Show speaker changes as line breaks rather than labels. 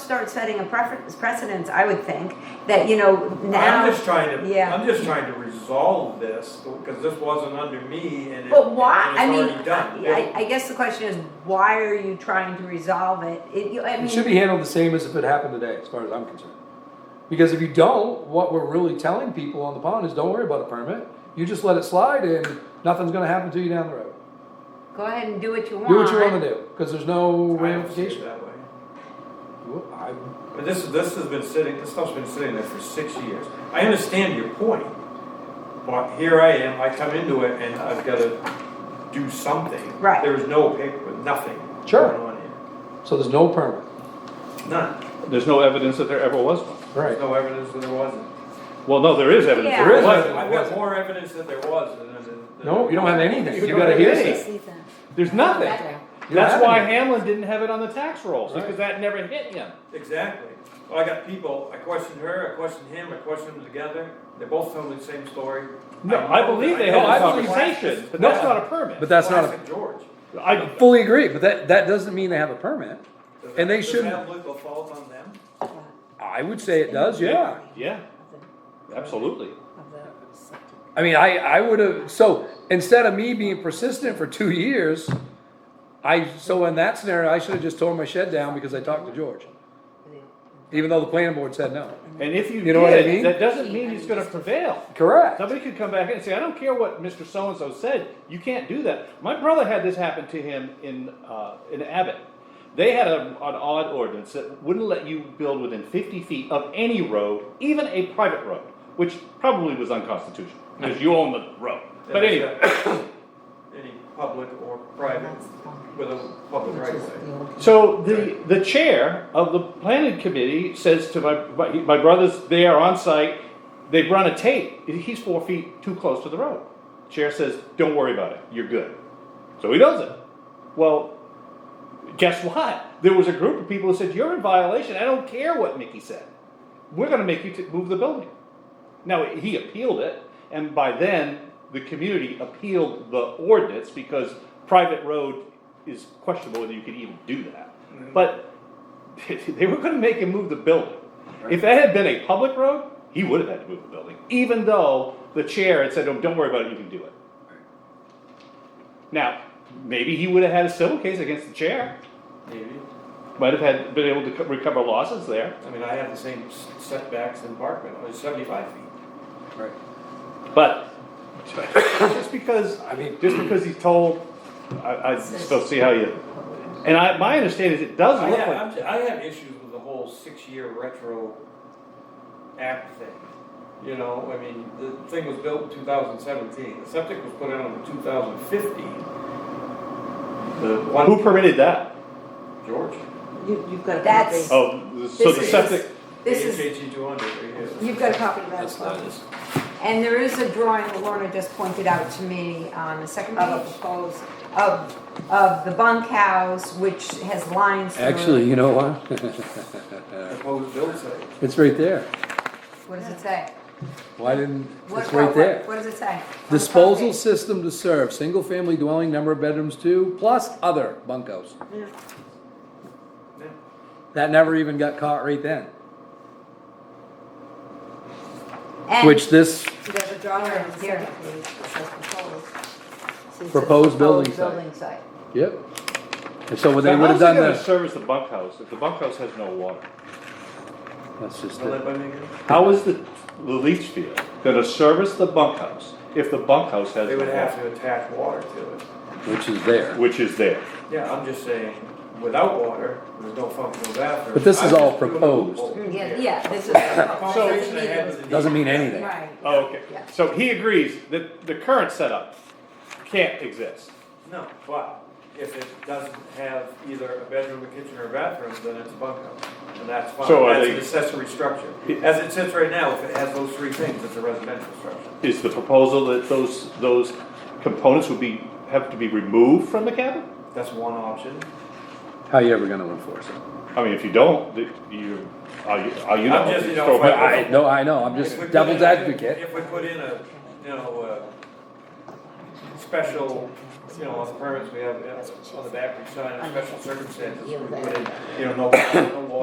start setting a preference precedence, I would think, that, you know, now.
I'm just trying to,
yeah.
I'm just trying to resolve this, because this wasn't under me and it- and it's
But why, I mean,
already done.
I, I guess the question is, why are you trying to resolve it? It, you- I mean.
It should be handled the same as if it happened today, as far as I'm concerned. Because if you don't, what we're really telling people on the pond is don't worry about a permit. You just let it slide and nothing's gonna happen to you down the road.
Go ahead and do what you want.
Do what you wanna do, cause there's no
I don't see it
ramification.
that way.
Well, I-
But this, this has been sitting, this stuff's been sitting there for six years. I understand your point, but here I am, I come into it and I've gotta do something.
Right.
There is no paper, nothing
Sure.
going on here.
So there's no permit,
None.
There's no evidence that there ever was one.
right?
There's no evidence that there wasn't.
Well, no, there is evidence.
Yeah.
There
There is
was.
evidence.
I've got more evidence that there was than. than-
No, you don't have anything.
You
You
don't
gotta
have
hear
anything.
this.
There's nothing.
You don't have
That's why
anything.
Hamlin didn't have it on the tax rolls,
Right.
because that never hit him.
Exactly. Well, I got people, I questioned her, I questioned him, I questioned them together, they both tell me the same story.
No, I believe they
know
had a
it's
I believe-
conversation, but
No.
that's not a permit.
But that's not,
Classic George.
a. I,
a- fully agree, but that, that doesn't mean they have a permit.
Does
And
that-
they
does
shouldn't-
that legal fault on them?
I would say it does, yeah.
yeah, absolutely.
I mean, I, I would have, so instead of me being persistent for two years, I, so in that scenario, I should have just torn my shed down because I talked to George. Even though the planning board said no.
And if you
You know what I mean?
did, that doesn't mean he's gonna prevail.
Correct.
Somebody could come back and say, I don't care what Mr. So-and-so said, you can't do that. My brother had this happen to him in, uh, in Abbott. They had a, an odd ordinance that wouldn't let you build within fifty feet of any road, even a private road, which probably was unconstitutional, because you own the road. But
That's
anyway,
not Any public or private, with a public right of way.
so the, the chair of the planning committee says to my, my, my brother's there on site, they run a tape, he's four feet too close to the road. Chair says, don't worry about it, you're good. So he does it. Well, guess what? There was a group of people who said, you're in violation, I don't care what Mickey said. We're gonna make you t- move the building. Now, he appealed it, and by then, the community appealed the ordinance because private road is questionable whether you could even do that. But they were gonna make him move the building. If that had been a public road, he would have had to move the building, even though the chair had said, "Oh, don't worry about it, you can do it. Now, maybe he would have had a civil case against the chair,
Maybe.
might have had, been able to co- recover losses there.
I mean, I have the same s- setbacks in Parkman, I was seventy-five feet.
Right.
But just because,
I mean-
just because he's told, I, I just don't see how you. And I, my understanding is it does
I
look
have,
like,
I'm ju- I have issues with the whole six-year retro act thing. You know, I mean, the thing was built in two thousand seventeen, the septic was put out in two thousand fifteen. The one,
who permitted that?
George?
You, you've got.
That's-
Oh, so the
This is-
septic,
This is,
HHE 200, E right here.
you've got a copy of that as well. And there is a drawing that Lorna just pointed out to me on the second
Of a
page of, of the bunkhouse, which has lines through it.
Actually, you know what?
Proposed build site.
It's right there.
What does it say?
Why didn't,
What-
it's
what-
right there.
What does it say?
Disposal system to serve, single family dwelling, number of bedrooms two, plus other bunkos.
Yeah.
That never even got caught right then,
And
which this
There's a drawing
on the
here.
second
proposed building
proposed
site.
building site.
Yep. And so when they
Now,
would have
how's it
done
gonna
this,
Service the bunkhouse, if the bunkhouse has no water,
that's just
Not that
it.
by me,
how is the, the leach field gonna service the bunkhouse if the bunkhouse has
They
no
would have
water?
to attach water to it.
Which is there.
Which is there,
Yeah, I'm just saying, without water, there's no functional bathroom.
But this is
I'm just
all
doing a
proposed.
Mm.
loophole
Yeah,
here.
yeah, this is.
Conversation I had with the-
Doesn't mean anything.
Right.
oh, okay,
Yeah.
so he agrees that the current setup can't exist.
No, but if it doesn't have either a bedroom, a kitchen, or a bathroom, then it's a bunkhouse, and that's fine.
So are
That's
they-
an accessory structure.
It-
As it sits right now, if it has those three things, it's a residential structure.
Is the proposal that those, those components would be, have to be removed from the cabin?
That's one option.
How you ever gonna enforce it?
I mean, if you don't, th- you, are you, are you
I'm
not?
just, you know,
throw
if I-
back-
I, no, I know, I'm just
If we put
devil's
in-
advocate.
If we put in a, you know, a special, you know, on the permits we have, uh, on the back, we sign a special circumstances, we put in, you know, no, no